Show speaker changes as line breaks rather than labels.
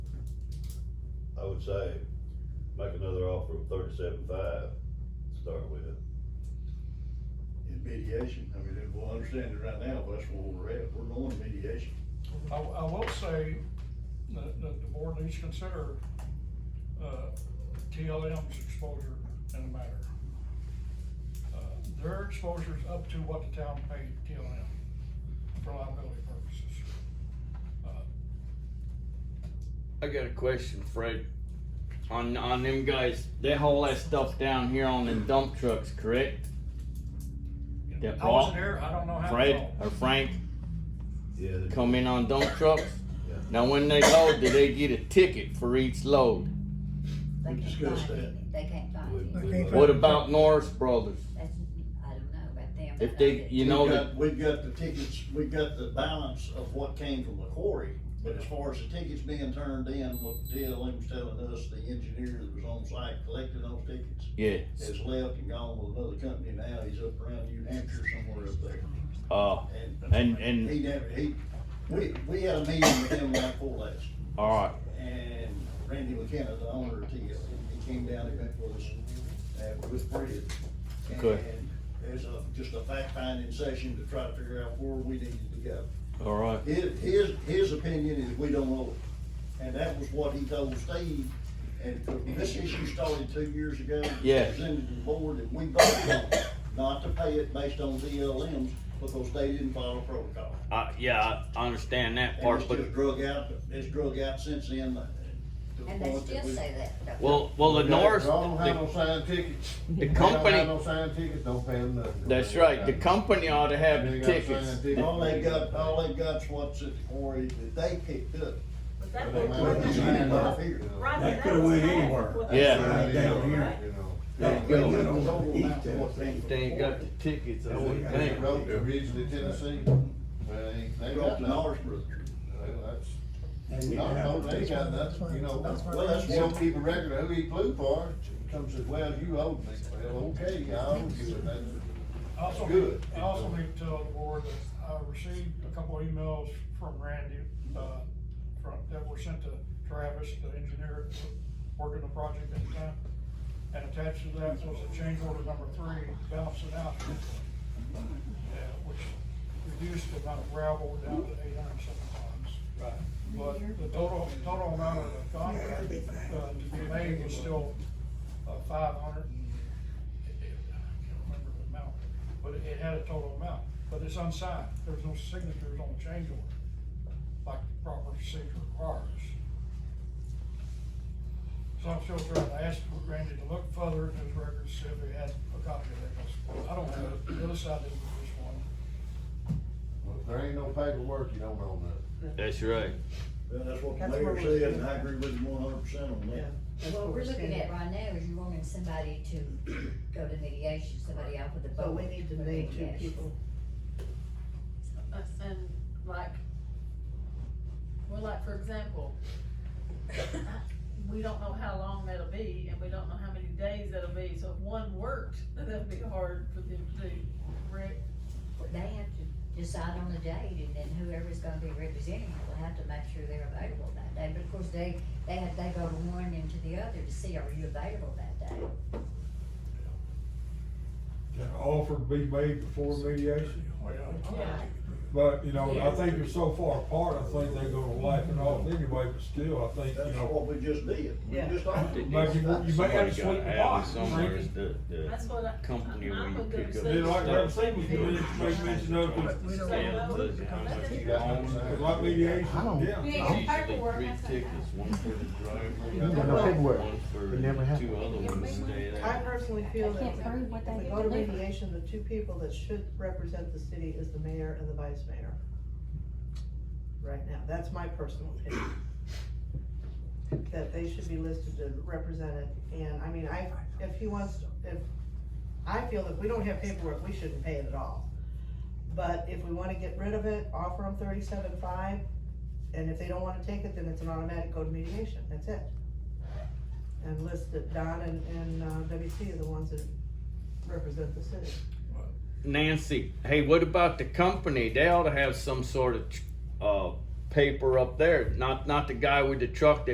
I would say, make another offer of thirty-seven five to start with.
in mediation, I mean, if we understand it right now, that's where we're at, we're going to mediation.
I, I will say that, that the board needs to consider, uh, TLM's exposure in the matter. Uh, Their exposure is up to what the town paid TLM for liability purposes. Uh,
I got a question, Fred. On on them guys, they haul that stuff down here on them dump trucks, correct?
you know,
That
I wasn't
ball-
there, I don't know how. it
Fred
all-
or Frank
Yeah, they-
come in on dump trucks.
Yeah.
Now, when they load, do they get a ticket for each load?
We
They can't
discussed
find
that.
it, they can't
we-
find it,
we-
What about Norris Brothers?
that's, I don't know about them.
If
but
they,
I
you
We've
know, that
got- We've got the tickets, we've got the balance of what came from the quarry, but as far as the tickets being turned in, what DLM was telling us, the engineer that was on site collecting those tickets
yeah.
has left and gone with another company now, he's up around New Hampshire somewhere up there.
Uh, And- and-
He never, he, we, we had a meeting with him like four last,
all right.
and Randy McKenna, the owner of TL, he came down, he met with us, uh, with Fred.
Okay.
And there's a, just a fact finding session to try to figure out where we needed to go.
All right.
His, his, his opinion is we don't know it, and that was what he told Steve, and this issue started two years ago.
Yeah.
Presented to the board, and we voted on it, not to pay it based on DLMs, because they didn't follow protocol.
I, yeah, I understand that
And
part,
it's
but
just drug out, it's drug out since then. uh, to the
And they
point that
still
we-
say that, don't they?
well, well, the Norris,
Don't have
the,
no signed tickets.
the
Don't have
company.
no signed tickets, don't pay them nothing.
That's right. The company ought to have the tickets.
All they got, all they got's what's at the quarry that they picked up.
But that
They
would-
might not be signed up here.
Right,
That
that
coulda
was
went
half
anywhere.
what-
Yeah.
Right down here.
You know.
That
They
goes
got the
on
total
the
amount of
east end.
what came from
They ain't got
the
the tickets. I
They
wouldn't
they
think.
wrote originally Tennessee, they, they
quarry.
got
Brought to
nothing.
Norrisburg.
Well, that's-
And we
I
have-
don't know, they got nothing, you know.
Well, that's
You don't
what,
keep a record of who he flew for, comes says, well, you owed me, well, okay, I owed you, and that's.
I Also,
Good.
I also need to tell the board that I received a couple of emails from Randy, uh, from, that were sent to Travis, the engineer working the project at the time. And attached to that was a change order number three, balance announcement. uh, Which reduced the amount of gravel down to eight hundred and seven tons. Right. But the total, total amount of the contract, uh, to be made was still, uh, five hundred I can't remember the amount, but it had a total amount, but it's unsigned, there's no signatures on the change order, like the proper procedure requires. So I'm still trying to ask Randy to look further in his records, see if he had a copy of that, 'cause I don't have it, the other side didn't get this one.
Well, if there ain't no paperwork, you don't know nothing.
That's right.
well, that's what the
That's
mayor
where we're-
said, and I agree with him one hundred percent on that.
What we're looking at right now is you wanting somebody to go to mediation, somebody out with the vote.
So we need to
for
name two
mediation.
people. Uh, And like, well, like, for example, we don't know how long that'll be, and we don't know how many days that'll be, so if one worked, that'd be hard for them to do, Rick.
But They have to decide on the date, and then whoever's gonna be representing it will have to make sure they're available that day, but of course, they, they have, they go to one and to the other to see, are you available that day?
An offer to be made before mediation, Oh,
Yeah.
but, you know, I think they're so far apart, I think they're gonna laugh it off anyway, but still, I think, you
That's
know.
what we just did, we
Yeah.
just offered.
Like you, you may have to
Somebody
sweep
gotta
the
have
pot.
it somewhere. It's the, the
That's what I.
company
I-
where
I'm
you
with
pick
them,
up
so-
Then like
stuff.
Graham said, we can make mention of it,
stamps
So, no,
that you
let
have
them-
to own, 'cause like mediation, yeah.
We ain't
Usually
got paperwork,
three
that's not
tickets, one for the
You ain't got
driver,
no
paperwork.
one for
It never happened.
two other ones to stay
I
there.
personally
I
feel that
can't prove what they
if we go to mediation, the two people that should represent the city is the mayor and the vice mayor. Right now, that's my personal opinion. That they should be listed and represented, and I mean, I, if he wants, if, I feel if we don't have paperwork, we shouldn't pay it at all. But if we wanna get rid of it, offer them thirty-seven five, and if they don't wanna take it, then it's an automatic go to mediation, that's it. And list that Don and, and, uh, WC are the ones that represent the city.
Nancy, hey, what about the company? They ought to have some sort of, uh, paper up there, not, not the guy with the truck that